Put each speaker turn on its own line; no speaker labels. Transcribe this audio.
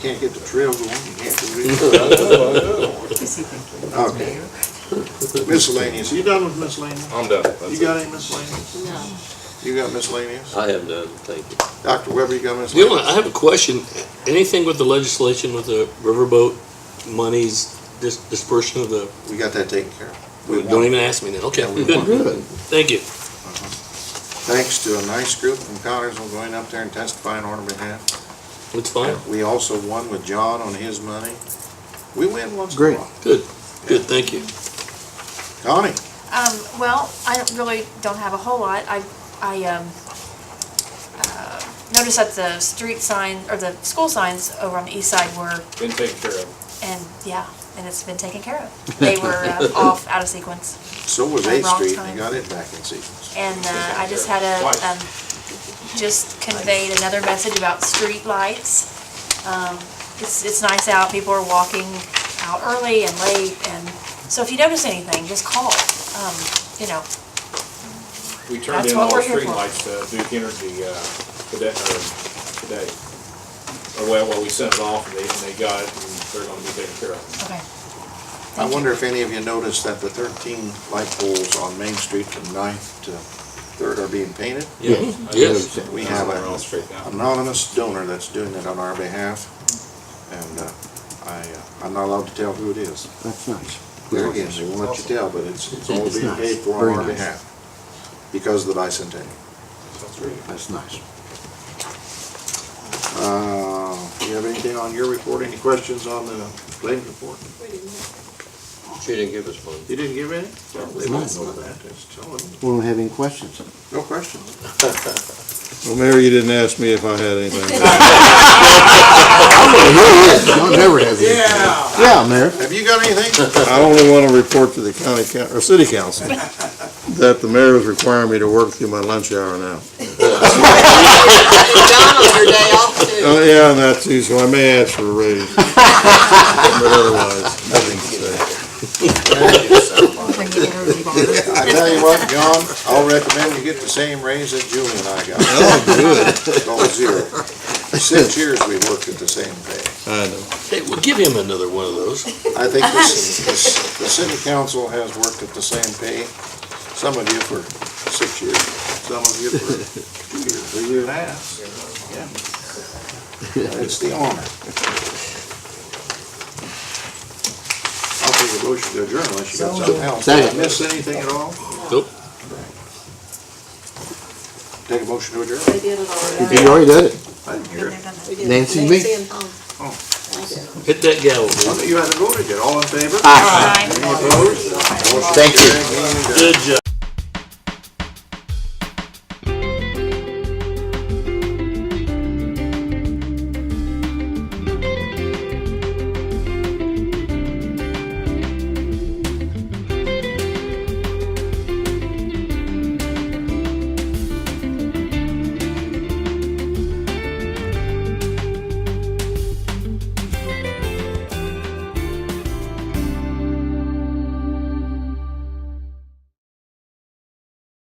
can't get the trail going, you can't do it. Okay. Miscellaneous, you done with miscellaneous?
I'm done. That's
You
it.
got any miscellaneous?
No.
You got miscellaneous?
I have done, thank you.
Dr. Weber, you got
The only,
miscellaneous?
I have a question. Anything with the legislation with the riverboat monies, dis- dispersion of the,
We got that taken care of. We
don't
won.
even ask me now. Okay,
Yeah, we
good.
won.
Thank you.
Thanks to a nice group from Connors on going up there and testifying on our behalf.
It's fine.
We also won with John on his money. We win once in a
Great.
while.
Good, thank you.
Connie,
Um, well, I don't really don't have a whole lot. I, I, um, uh, noticed that the street sign, or the school signs over on the east side were,
Been taken care of.
and, yeah, and it's been taken care of. They were uh, off, out of sequence.
so was
Uh,
Eighth
wrong
Street, and they
time.
got it back in sequence.
And, uh, I just had a,
Twice.
um, just conveyed another message about street lights. Um, it's, it's nice out, people are walking out early and late, and, so if you notice anything, just call. Um, you know,
We turned
That's
in
what
all
we're
the
here for.
streetlights to Duke Energy, uh, today, or today. Or well, well, we sent it off and they, and they got it and they're gonna be taken care of.
okay.
I wonder if any of you noticed that the thirteen light poles on Main Street from Ninth to Third are being painted?
Yeah. Yes.
We have
Somewhere
an
else straight now.
anonymous donor that's doing it on our behalf, and, uh, I, uh, I'm not allowed to tell who it is.
That's nice.
There again, they won't let you tell, but it's, it's all
It's
being
nice.
paid for on
Very
our
nice.
behalf, because of the bicentennial.
That's great.
That's nice.
Uh, you have anything on your report, any questions on the claims report?
She didn't give us one.
You didn't give any? Well, They might know that, just tell them.
We don't have any questions.
No questions.
Well, Mary, you didn't ask me if I had anything.
John never has any. Yeah, Mayor.
Have you got anything?
I only want to report to the county, coun- or city council, that the mayor is requiring me to work through my lunch hour now.
John on your day off too.
Oh, yeah, and that's too, so I may ask for a raise. But otherwise, nothing to say.
I tell you what, John, I'll recommend you get the same raise that Julie and I got. Oh, good. Going zero. Six years we worked at the same pay.
I know.
Hey, well, give him another one of those.
I think this, this, the city council has worked at the same pay, some of you for six years, some of you for two years, a year and a half. Yeah. It's the honor. I'll take a motion to adjourn unless you got something else. Did I
Second.
miss anything at all?
Nope.
Take a motion to adjourn.
They did it already.
You already did it.
I didn't hear it.
We did.
Nancy and me.
Nancy and Tom.
Oh.
They did.
Hit that gavel, man.
You haven't voted yet. All in favor?
Bye.
Any opposed?
Thank you.
Meeting adjourned.
Good job.